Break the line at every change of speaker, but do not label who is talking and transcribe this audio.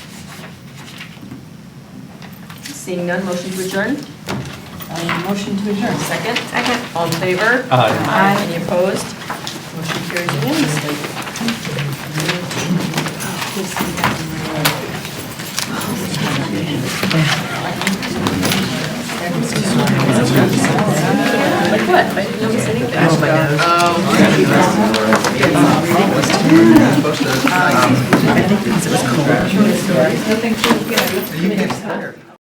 Seeing none, motion to adjourn?
Uh, Motion to adjourn.
Second? Second. All in favor?
Aye.
Any opposed? Motion carries unanimously. Like what? I didn't notice anything.
You get tired.